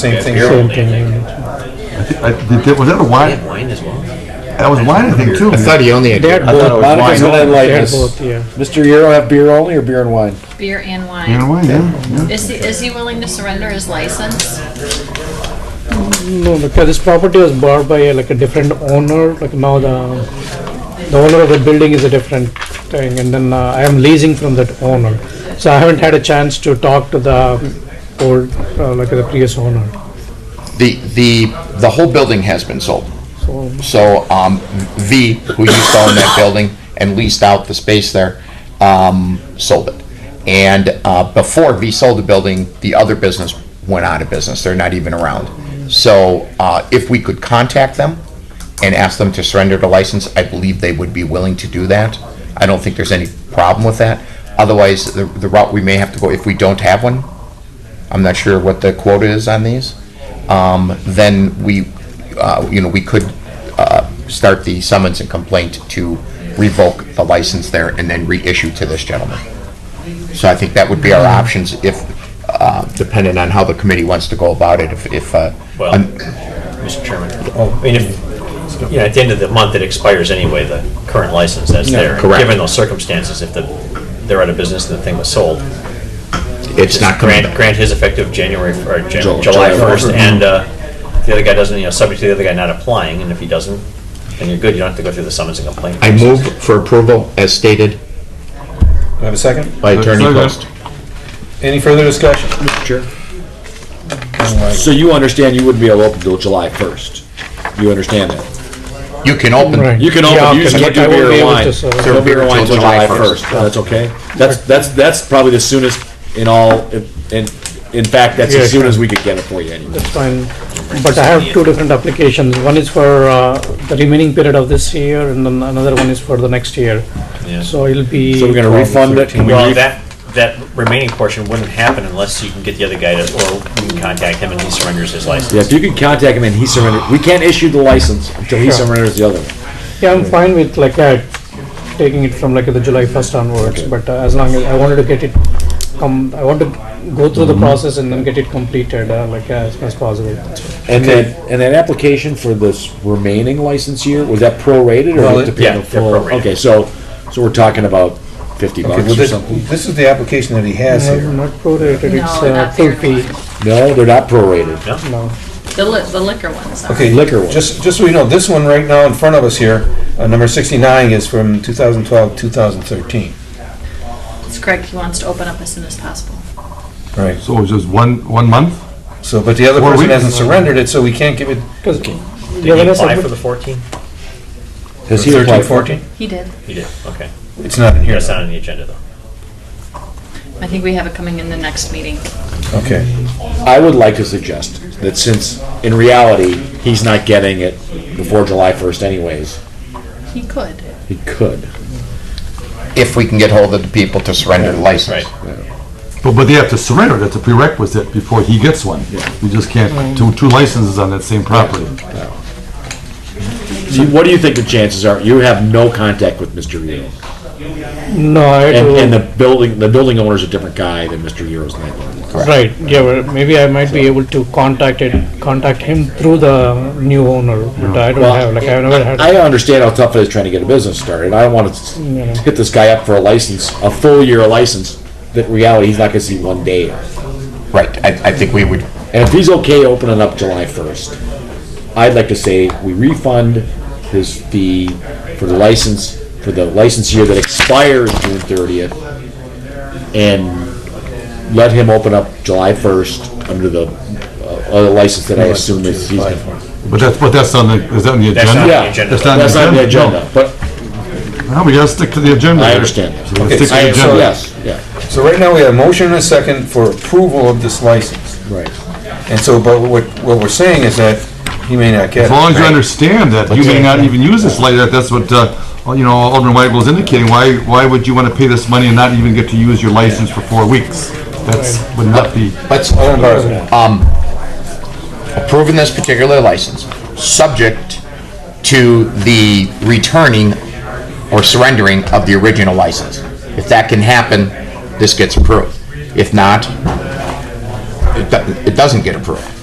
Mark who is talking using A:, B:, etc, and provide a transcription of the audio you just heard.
A: Same thing.
B: Same
A: here.
B: thing.
C: I thi- I- did that- Was that a wine?
D: Wine as well.
C: That was wine, I think, too.
E: I thought he only had
B: They had
A: I thought it
B: both.
A: was wine.
B: They
A: Don't
B: had
A: enlighten us.
B: both, yeah.
A: Mr. Euro have beer only or beer and wine?
F: Beer and
C: You know
F: wine.
C: what, yeah, yeah.
F: Is he, is he willing to surrender his license?
B: No, because this property was bought by uh, like a different owner, like now the, the owner of the building is a different thing, and then uh, I am leasing from that owner. So I haven't had a chance to talk to the old, uh, like the previous owner.
E: The, the, the whole building has been sold.
B: So
E: So, um, V, who used to own that building and leased out the space there, um, sold it. And, uh, before V sold the building, the other business went out of business. They're not even around. So, uh, if we could contact them and ask them to surrender the license, I believe they would be willing to do that. I don't think there's any problem with that. Otherwise, the, the route we may have to go, if we don't have one, I'm not sure what the quota is on these, um, then we, uh, you know, we could uh, start the summons and complaint to revoke the license there and then reissue to this gentleman. So I think that would be our options if, uh, Mm-hmm. depending on how the committee wants to go about it, if, if, uh,
D: Well-
E: un-
D: Mr. Chairman, I mean, if, you know, at the end of the month, it expires anyway, the current license that's there.
E: correct.
D: Given those circumstances, if the, they're out of business and the thing was sold.
E: it's not coming
D: Grant,
E: up.
D: grant his effective January, f- or Jan-
A: Ju-
D: July
A: July
D: 1st,
A: first.
D: and uh, the other guy doesn't, you know, subject to the other guy not applying, and if he doesn't, then you're good, you don't have to go through the summons and complaint.
E: I move for approval as stated
A: Do I have a second?
E: by Attorney
C: Second.
E: Post.
A: Any further discussion?
G: So you understand you wouldn't be able to open till July 1st? You understand that?
E: You can open,
B: Right.
G: You can
B: Yeah,
G: open, you
B: okay,
G: can't
B: I
G: do
B: won't
G: beer
B: be
G: and
B: able
G: wine.
B: to serve.
G: No beer and wine till July
E: July 1st.
G: 1st. That's okay? That's, that's, that's probably the soonest in all, in, in in fact, that's
B: Yeah,
G: as soon
B: sure.
G: as we could get it for you anyway.
B: it's fine. But I have two different applications. One is for uh, the remaining period of this year, and then another one is for the next year.
D: Yeah.
B: So it'll be.
G: So we're gonna refund it? Can we
D: Well,
G: ref-
D: that, that remaining portion wouldn't happen unless you can get the other guy to, or we can contact him and he surrenders his license.
G: Yeah, if you can contact him and he surrenders, we can't issue the license until he
B: Sure.
G: surrenders the other one.
B: Yeah, I'm fine with like that, taking it from like the July 1st onwards, but uh, as long as, I wanted to get it, come, I want to go through the
G: Mm-hmm.
B: process and then get it completed, uh, like as soon as possible.
G: And then, and that application for this remaining license year, was that prorated
A: Well,
G: or did it
D: yeah,
G: depend on
D: they're
G: full?
D: prorated.
G: Okay, so, so we're talking about 50
A: Okay,
G: bucks
A: well,
G: or
A: this,
G: something?
A: this is the application that he has
B: No,
A: here.
B: Not prorated,
F: No,
B: it's uh,
F: not
B: full
F: beer
B: fee.
F: and wine.
G: No, they're not prorated.
B: No,
F: The li, the liquor ones are.
A: Okay,
G: Liquor one.
A: Just, just so you know, this one right now in front of us here, uh, number sixty-nine is from 2012, 2013.
F: It's Craig, he wants to open up as soon as possible.
A: Right,
C: So it was just one, one month?
A: so, but the other
C: Well, we-
A: person hasn't surrendered it, so we can't give it
B: because.
D: Did he apply for the 14?
G: Has he
A: thirteen,
G: applied?
A: fourteen?
F: He did.
D: He did, okay.
A: It's not in here.
D: That's not on the agenda, though.
F: I think we have it coming in the next meeting.
A: Okay,
G: I would like to suggest that since, in reality, he's not getting it before July 1st anyways,
F: He could.
G: he could.
E: if we can get hold of the people to surrender the license.
D: Right.
C: But, but they have to surrender, that's a prerequisite before he gets one. We just can't, two, two licenses on that same property.
G: So What do you think the chances are? You have no contact with Mr. Euro.
B: No, I
G: And, and
B: do,
G: the building, the building owner's a different guy than Mr. Euro's landlord.
B: right, yeah, well, maybe I might be able to contact it, contact him through the new owner, but I don't
G: Well,
B: have, like, I've never had.
G: I understand how tough it is trying to get a business started. I don't want to hit this guy up for a license, a full year license, that in reality, he's not gonna see one day of.
E: Right, I, I think we would,
G: And if he's okay opening up July 1st, I'd like to say we refund his fee for the license, for the license year that expires June 30th, and let him open up July 1st under the uh, other license that I assume is he's going to.
C: But that's, but that's on the, is that on the
D: That's
C: agenda?
D: not on
G: Yeah,
D: the agenda.
C: that's
D: though.
C: not-
G: That's not on the
C: agenda?
G: agenda, but
C: No, we gotta stick to the agenda.
G: I
C: here.
G: understand.
C: So we
A: Okay,
C: stick to
G: I,
C: the
G: so
C: agenda.
G: yes, yeah,
A: so right now we have a motion and a second for approval of this license.
G: right.
A: And so, but what, what we're saying is that he may not get it.
C: As long as you understand that, you may not even use this later, that's what, uh, you know, Alderman Weigel was indicating, why, why would you wanna pay this money and not even get to use your license for four weeks? That's, would not be.
E: let's,
A: Alderman Barzil.
E: um, approving this particular license, subject to the returning or surrendering of the original license. If that can happen, this gets approved. If not, it, do- it doesn't get approved.